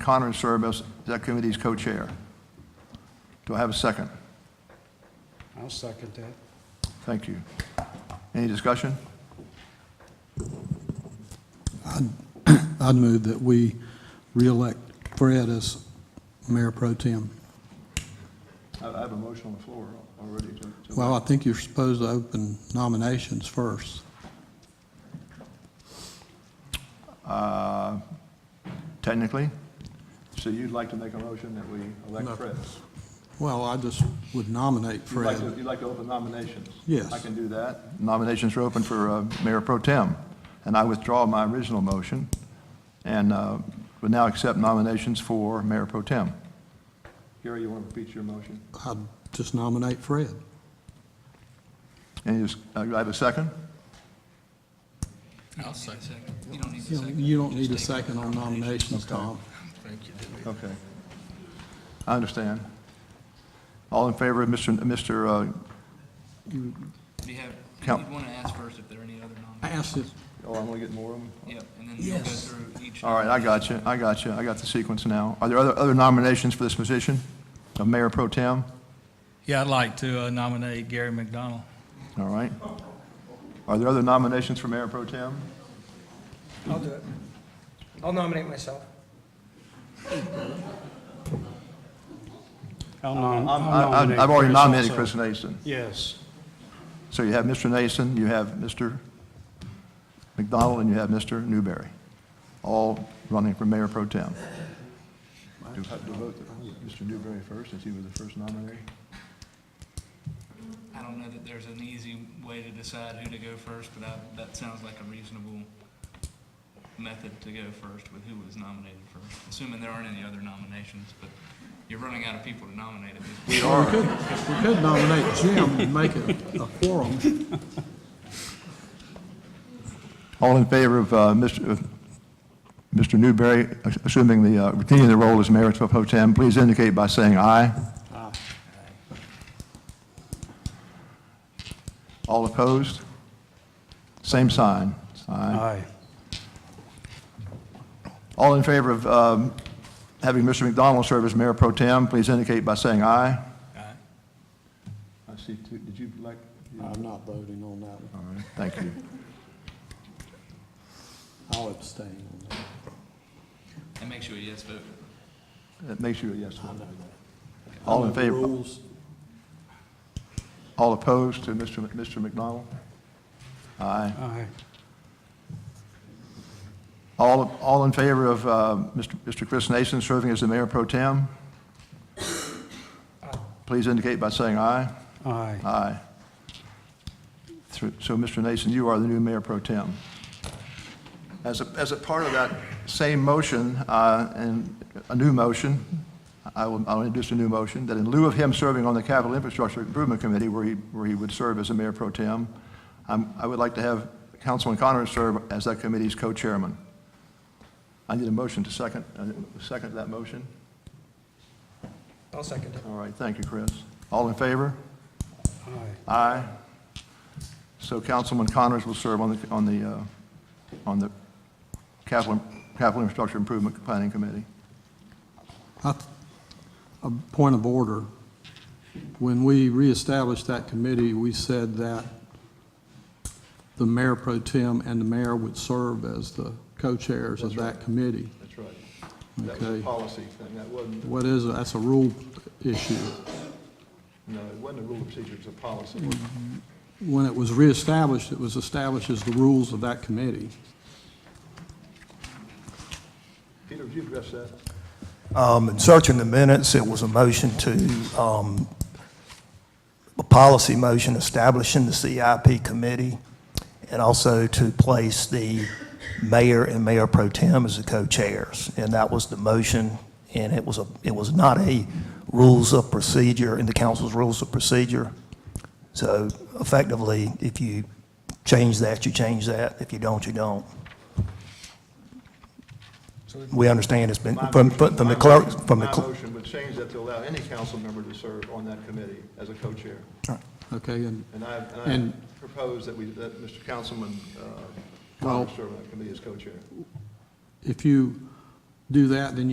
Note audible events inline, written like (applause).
Connor to serve as that committee's co-chair. Do I have a second? I'll second that. Thank you. Any discussion? I'd move that we reelect Fred as mayor pro tem. I I have a motion on the floor already to- to- Well, I think you're supposed to open nominations first. Uh, Technically, so you'd like to make a motion that we elect No. Fred? Well, I just would nominate You'd like to- Fred. You'd like to open nominations? Yes. I can do that. Nominations are open for uh, Mayor Pro Tem, and I withdraw my original motion and uh, would now accept nominations for Mayor Pro Tem. Gary, you want to repeat your motion? I'd just nominate Fred. And you, uh, do I have a second? I'll second. You don't need a You know, second. You don't need Just a take it. second on nominations, Tom. Thank you, David. Okay. I understand. All in favor of uh, Mr. Mr. Do you have, Count. you'd want to ask first if there are any other I nominees? asked it, uh, Oh, I'm going to get more of them? Yep, and then you'll go Yes. through each. All right, I got you, I got you, I got the sequence now. Are there other, other nominations for this position of Mayor Pro Tem? Yeah, I'd like to uh, nominate Gary McDonald. All right. Are there other nominations for Mayor Pro Tem? I'll do it. I'll nominate myself. Uh, I'll I'm- nom- I'll I- nominate I- I've already nominated also. Chris Nason. Yes, So you have Mr. Nason, you have Mr. McDonald, and you have Mr. Newberry, all running for Mayor Pro Tem. Do have to vote Mr. Newberry first, since he was the first nominee? I don't know that there's an easy way to decide who to go first, but I- that sounds like a reasonable method to go first with who was nominated first, assuming there aren't any other nominations, but you're running out of people to nominate at this point. we could, we could nominate Jim and make it a quorum. All in favor of uh, Mr. of Mr. Newberry assuming the, uh, continuing the role as mayor of Pro Tem, please indicate by saying aye. Aye. All opposed? Same sign. Aye. aye. All in favor of um, having Mr. McDonald serve as mayor pro tem, please indicate by saying aye. Aye. I see two, did you like? I'm not voting on that one. All right, thank you. I'll abstain on that. That makes you a yes vote. (laughs) That makes you a yes vote. All in favor, Rules, all opposed to Mr. Mc- Mr. McDonald? Aye. Aye. All, all in favor of uh, Mr. Mr. Chris Nason serving as the mayor pro tem? Please indicate by saying aye. Aye. Aye. Through- So, Mr. Nason, you are the new mayor pro tem. As a, as a part of that same motion, uh, and a new motion, I will, I'll introduce a new motion, that in lieu of him serving on the Capital Infrastructure Improvement Committee, where he, where he would serve as a mayor pro tem, I'm- I would like to have Councilman Connor serve as that committee's co-chairman. I need a motion to second, uh, second that motion. I'll second it. All right, thank you, Chris. All in favor? Aye. Aye. So Councilman Connors will serve on the, on the, uh, on the capital, capital infrastructure improvement planning committee. I th- A point of order. When we reestablished that committee, we said that the mayor pro tem and the mayor would serve as the co-chairs of that committee. That's right. That was a Okay. policy thing, that wasn't, What is, it? that's a rule issue. no, it wasn't a rule of procedure, it's a policy. When it was reestablished, it was established as the rules of that committee. Peter, would you address that? Um, In searching the minutes, it was a motion to, um, a policy motion establishing the CIP committee, and also to place the mayor and mayor pro tem as the co-chairs. And that was the motion, and it was a, it was not a rules of procedure, in the council's rules of procedure. So effectively, if you change that, you change that. If you don't, you don't. We understand it's been, from, from from the clerk, from the My clerk. motion would change that to allow any council member to serve on that committee as a co-chair. Okay, and, And I, and And- I propose that we, that Mr. Councilman uh, Well- Connors serve on that committee as co-chair. if you do that, then